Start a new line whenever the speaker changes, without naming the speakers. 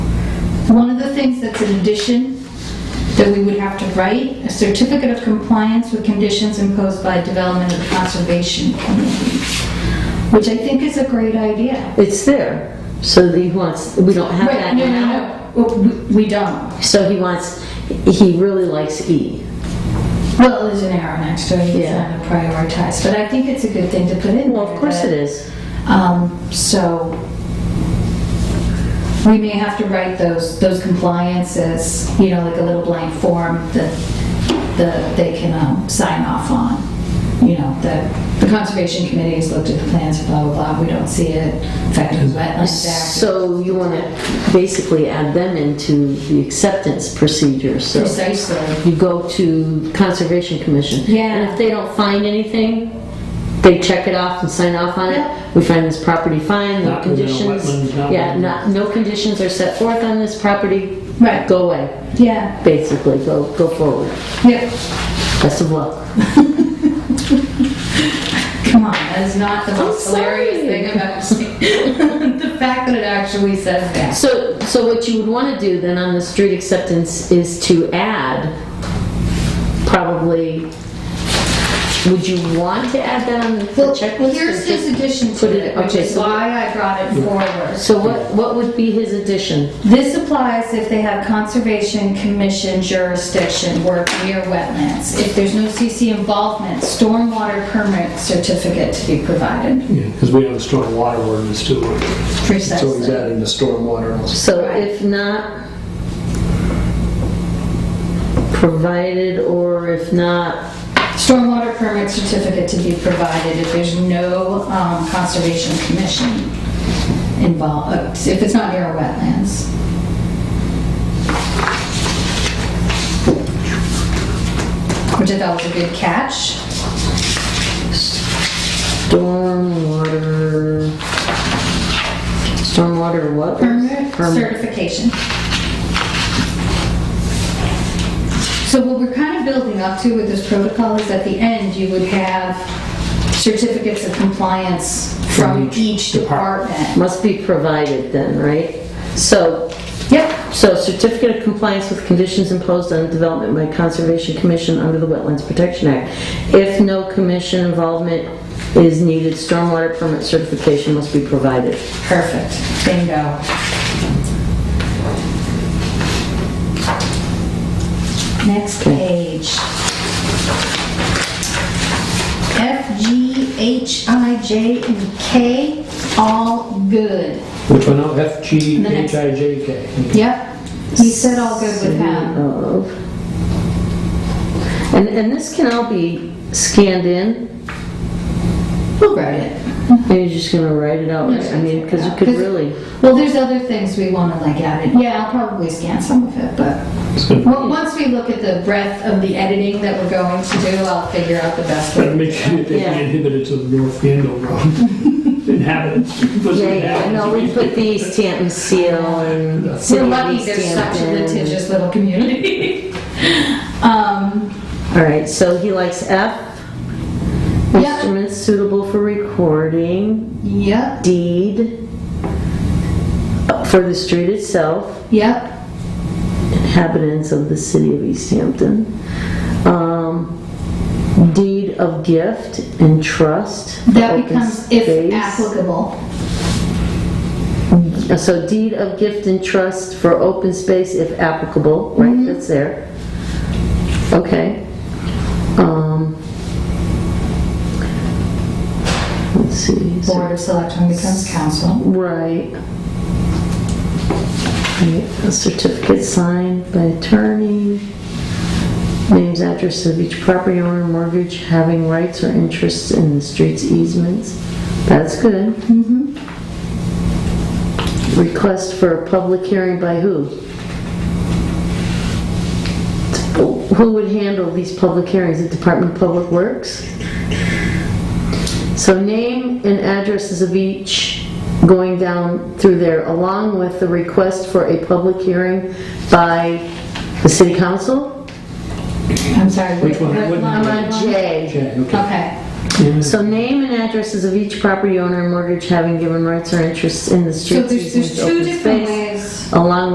as an addition that we would have to write a certificate of compliance with conditions imposed by Development and Conservation Committee, which I think is a great idea.
It's there. So he wants, we don't have
Right,
that
no,
now.
no, no, we- we don't.
So he wants, he really likes E.
Well, there's an arrow next to it, it's
Yeah.
not prioritized, but I think it's a good thing to put in.
Well, of course it is.
Um, so we may have to write those, those compliances, you know, like a little blank form that, that they can, um, sign off on. You know, that the conservation committee has looked at the plans, blah, blah, blah, we don't see it, affecting wetlands act.
So you want to basically add them into the acceptance procedure, so.
Precisely,
You go to Conservation Commission.
Yeah.
And if they don't find anything, they check it off and sign off on
Yeah.
it. We find this property fine, no
Not within a
conditions.
wetland, not
Yeah,
within-
not, no conditions are set forth on this property.
Right.
Go away,
yeah,
basically, go, go forward.
yeah,
Best of luck.
come on, that is not the most
sorry.
hilarious thing I've ever seen. The fact that it actually says that.
So, so what you would want to do then on the street acceptance is to add, probably, would you want to add that on the
Well,
checklist? or
Here's
just-
his addition
put
to
it-
it, which
okay,
is
so-
why I brought it forward.
So what, what would be his addition?
This applies if they have Conservation Commission jurisdiction, work near wetlands. If there's no CC involvement, stormwater permit certificate to be provided.
Because we have a stormwater ordinance too. So he's
Precisely.
adding the stormwater also.
So
Right.
if not provided, or if not,
Stormwater permit certificate to be provided if there's no um, Conservation Commission involved, uh, if it's not near wetlands. Which I thought was a good catch.
stormwater, stormwater what?
permit
Permit.
certification. So what we're kind of building up to with this protocol is at the end, you would have certificates of compliance from
From each
each department.
Must be provided then, right? So
Yep,
So certificate of compliance with conditions imposed on development by Conservation Commission under the Wetlands Protection Act. If no commission involvement is needed, stormwater permit certification must be provided.
perfect, bingo. Next page. F, G, H, I, J, and K, all good.
Which one, oh, F, G,
The next-
H, I, J, K.
Yep, he said all good with him.
Of. And, and this can all be scanned in,
We'll write it.
and you're just gonna write it out, I mean, because you could really,
Well, there's other things we want to like add in. Yeah, I'll probably scan some of it, but well, once we look at the breadth of the editing that we're going to do, I'll figure out the best
Trying to
way.
make sure that they
Yeah.
inhibited to the North Handle Road. Inhabitants.
yeah, yeah, no, we put the East Hampton seal and.
We're
City of
lucky
East
there's such a
Hampton.
litigious little community. Um,
All right, so he likes F.
Yep.
Instruments suitable for recording,
Yep,
deed, for the street itself,
yep,
inhabitants of the city of East Hampton, um, deed of gift and trust. for
that
open
becomes if
space.
applicable.
Uh, So deed of gift and trust for open space if applicable, right, that's there. Okay. Um, Let's see. so-
Board of Selectmen becomes council.
Right. Right, A certificate signed by attorney, names, address of each property owner, mortgage, having rights or interests in the streets easements. That's good. Request for a public hearing by who? Who would handle these public hearings? The Department of Public Works? So name and addresses of each going down through there, along with the request for a public hearing by the city council?
I'm sorry.
Which one?
what
What
line
I'm
am I
on
on?
J.
Okay, okay.
Okay,
Yeah.
So name and addresses of each property owner and mortgage having given rights or interests in the
so there's
streets.
there's
easements, open
two different
space,
ways.
Along